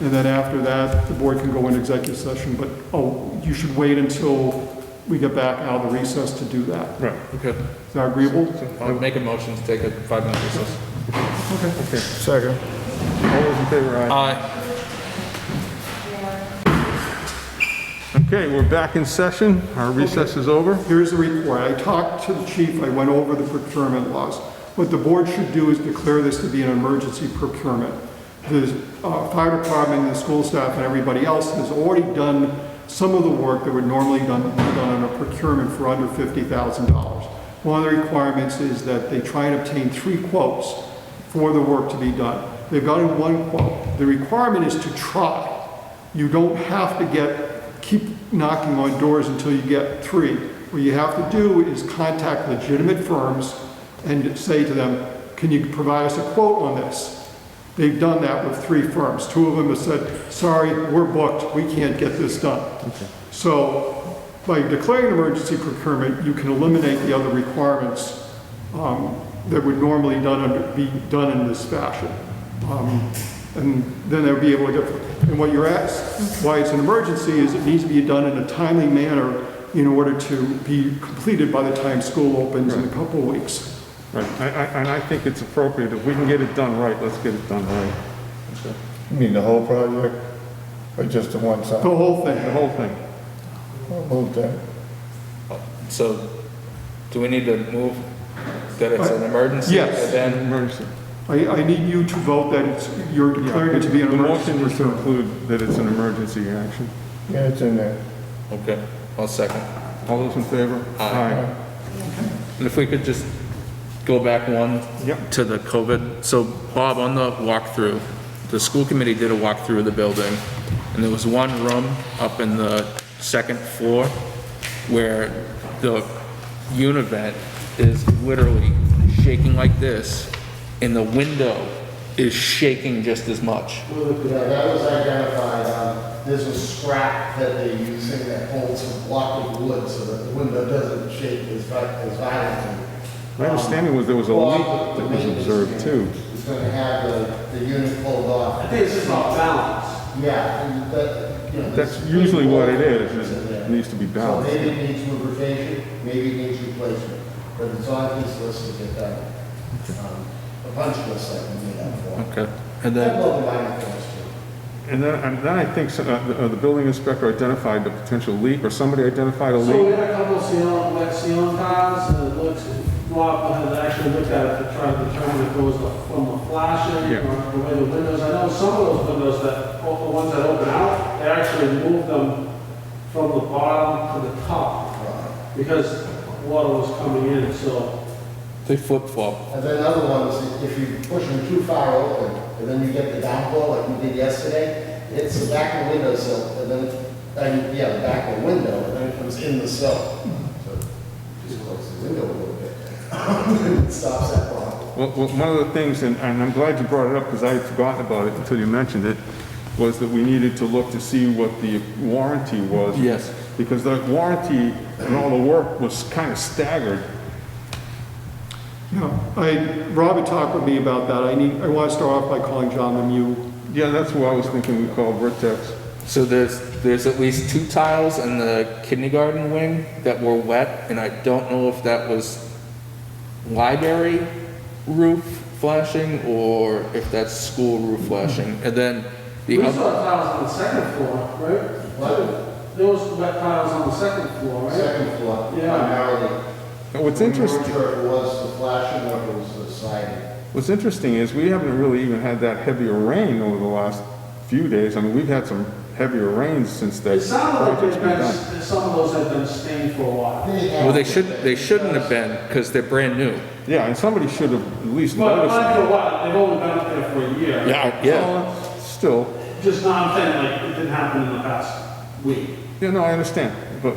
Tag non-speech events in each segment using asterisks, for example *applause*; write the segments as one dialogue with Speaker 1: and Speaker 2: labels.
Speaker 1: And then after that, the board can go into executive session, but, oh, you should wait until we get back out of the recess to do that.
Speaker 2: Right.
Speaker 3: Okay.
Speaker 1: Is that agreeable?
Speaker 3: I would make a motion to take a five-minute recess.
Speaker 2: Okay. Second. All those in favor, aye.
Speaker 3: Aye.
Speaker 2: Okay, we're back in session. Our recess is over.
Speaker 1: Here's the report. I talked to the chief, I went over the procurement laws. What the board should do is declare this to be an emergency procurement. The uh, fire department, the school staff, and everybody else has already done some of the work that would normally done, be done on a procurement for under $50,000. One of the requirements is that they try and obtain three quotes for the work to be done. They've gotten one quote. The requirement is to try. You don't have to get, keep knocking on doors until you get three. What you have to do is contact legitimate firms and say to them, can you provide us a quote on this? They've done that with three firms. Two of them have said, sorry, we're booked, we can't get this done. So by declaring an emergency procurement, you can eliminate the other requirements um, that would normally done under- be done in this fashion. Um, And then they'll be able to get, and what you're
Speaker 2: Mm-hmm.
Speaker 1: asked, why it's an emergency is it needs to be done in a timely manner in order to be completed by the time school opens in a couple of weeks.
Speaker 2: Right, I- I- and I think it's appropriate, if we can get it done right, let's get it done right,
Speaker 4: You mean the whole project, or just the one
Speaker 1: The
Speaker 4: side?
Speaker 1: whole thing,
Speaker 2: the whole thing.
Speaker 4: I'll Move that.
Speaker 3: So, do we need to move that it's an emergency?
Speaker 1: Yes.
Speaker 3: and Then,
Speaker 2: Emergency.
Speaker 1: I, I need you to vote that it's, you're declaring it to be an
Speaker 2: The motion was
Speaker 1: emergency.
Speaker 2: to include that it's an emergency action.
Speaker 4: Yeah, it's in there.
Speaker 3: okay, one second.
Speaker 2: All those in favor?
Speaker 3: Aye. And if we could just go back one
Speaker 2: Yep.
Speaker 3: to the COVID. So Bob, on the walkthrough, the school committee did a walkthrough of the building, and there was one room up in the second floor where the univent is literally shaking like this, and the window is shaking just as much.
Speaker 5: Yeah, that was identified, um, there's a scrap that they're using that holds a block of wood so that the window doesn't shake as vi- as violently. Um,
Speaker 2: My understanding was there was a leak
Speaker 5: Well,
Speaker 2: that was observed too.
Speaker 5: It's gonna have the, the unit pulled
Speaker 6: I
Speaker 5: off,
Speaker 6: think it's just off balance.
Speaker 5: yeah, and that, you know. there's-
Speaker 2: That's usually what it is, is
Speaker 5: Yeah.
Speaker 2: it needs to be
Speaker 5: So
Speaker 2: balanced.
Speaker 5: maybe it needs lubrication, maybe it needs replacement, but it's on his list to get done. Um, A punch list I can do that for.
Speaker 3: Okay. And
Speaker 5: I'd
Speaker 3: then,
Speaker 5: love a minor things too.
Speaker 2: And then, and then I think so- uh, the uh, the building inspector identified the potential leak, or somebody identified a
Speaker 6: So we
Speaker 2: leak.
Speaker 6: had a couple of seal, wet seal tiles, and it looks, Rob had actually looked at it to try to determine if it was the- from the flashing
Speaker 2: Yeah.
Speaker 6: or the way the windows, I know some of those windows that, o- the ones that open out, they actually moved them from the bottom to the top, because water was coming in, so,
Speaker 3: they flip-flop.
Speaker 5: And then another one is if you push them too far open, and then you get the downpour like we did yesterday, it's the back of the window sill, and then, and, yeah, the back of the window, and then it comes in the sill. So Just close the window a little bit. And it *laughs* Stops that problem.
Speaker 2: Well, well, one of the things, and and I'm glad you brought it up, because I had forgotten about it until you mentioned it, was that we needed to look to see what the warranty was.
Speaker 3: Yes.
Speaker 2: Because the warranty and all the work was kind of staggered.
Speaker 1: Yeah, I, Rob had talked with me about that. I need, I want to start off by calling John Lemieux.
Speaker 2: Yeah, that's what I was thinking we call Vertex.
Speaker 3: So there's, there's at least two tiles in the kindergarten wing that were wet, and I don't know if that was library roof flashing or if that's school roof flashing. And then
Speaker 6: we
Speaker 3: the
Speaker 6: saw
Speaker 3: other,
Speaker 6: tiles on the second floor, right?
Speaker 5: What?
Speaker 6: There was wet tiles on the second floor, right?
Speaker 5: Second floor,
Speaker 6: Yeah.
Speaker 5: primarily.
Speaker 2: Now, What's
Speaker 5: We weren't
Speaker 2: interesting,
Speaker 5: sure if it was the flashing or if it was the siding.
Speaker 2: what's interesting is we haven't really even had that heavier rain over the last few days. I mean, we've had some heavier rains since that
Speaker 6: It sounded like
Speaker 2: project's
Speaker 6: they've
Speaker 2: been
Speaker 6: been,
Speaker 2: done.
Speaker 6: some of those had been stained for a while.
Speaker 3: well, they should, they shouldn't have been, because they're brand new.
Speaker 2: Yeah, and somebody should have at least
Speaker 6: But
Speaker 2: noticed.
Speaker 6: not for a while, they've only been up there for a year.
Speaker 3: Yeah, yeah.
Speaker 2: Uh, Still,
Speaker 6: Just not, I'm saying, like, it didn't happen in the past week.
Speaker 2: yeah, no, I understand, but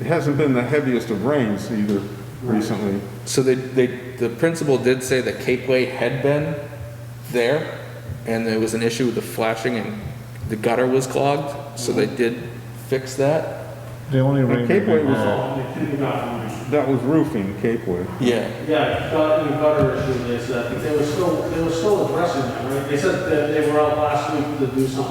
Speaker 2: it hasn't been the heaviest of rains either recently.
Speaker 3: So they, they, the principal did say that Cape Way had been there, and there was an issue with the flashing and the gutter was clogged, so they did fix that.
Speaker 4: The only
Speaker 2: And
Speaker 4: ring that
Speaker 2: Cape Way
Speaker 4: we
Speaker 2: was-
Speaker 4: had,
Speaker 6: Um, They couldn't have
Speaker 2: That was roofing Cape Way.
Speaker 3: Yeah.
Speaker 6: Yeah, but in the gutter issue, they said, I think they were still, they were still addressing that, right? They said that they were out last week to do something